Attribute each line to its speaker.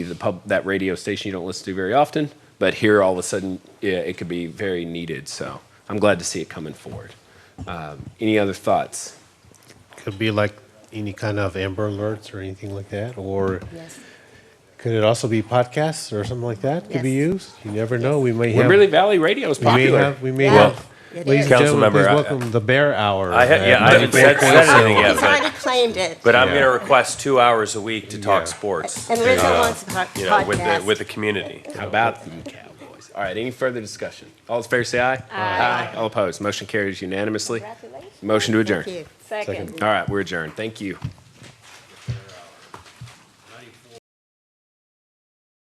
Speaker 1: the pub, that radio station you don't listen to very often, but here all of a sudden yeah, it could be very needed. So I'm glad to see it coming forward. Um, any other thoughts?
Speaker 2: Could be like any kind of Amber Alerts or anything like that, or could it also be podcasts or something like that? Could be
Speaker 3: Yes.
Speaker 2: used. You never know. We may have.
Speaker 1: Kimberly Valley Radio is
Speaker 2: we may
Speaker 1: popular.
Speaker 2: have. We may
Speaker 3: Yeah,
Speaker 2: have.
Speaker 3: it
Speaker 2: Ladies and
Speaker 3: is.
Speaker 4: Council
Speaker 2: gentlemen,
Speaker 4: member,
Speaker 2: please
Speaker 4: I-
Speaker 2: welcome the Bear Hour.
Speaker 4: I ha-
Speaker 2: at
Speaker 4: yeah, I haven't said
Speaker 2: 94.7.
Speaker 4: said anything yet,
Speaker 3: He's already
Speaker 4: but,
Speaker 3: claimed it.
Speaker 4: but I'm
Speaker 2: Yeah.
Speaker 4: going to request two hours a week to talk
Speaker 2: Yeah.
Speaker 4: sports.
Speaker 3: And Rizzo
Speaker 4: uh,
Speaker 3: wants a po-
Speaker 4: You know, with the,
Speaker 3: podcast.
Speaker 4: with the community.
Speaker 1: How about them Cowboys? All right, any further discussion? All in favor, say aye. Aye. All opposed, motion carries unanimously.
Speaker 3: Congratulations.
Speaker 1: Motion to adjourn.
Speaker 3: Thank you.
Speaker 1: All right, we're adjourned. Thank you.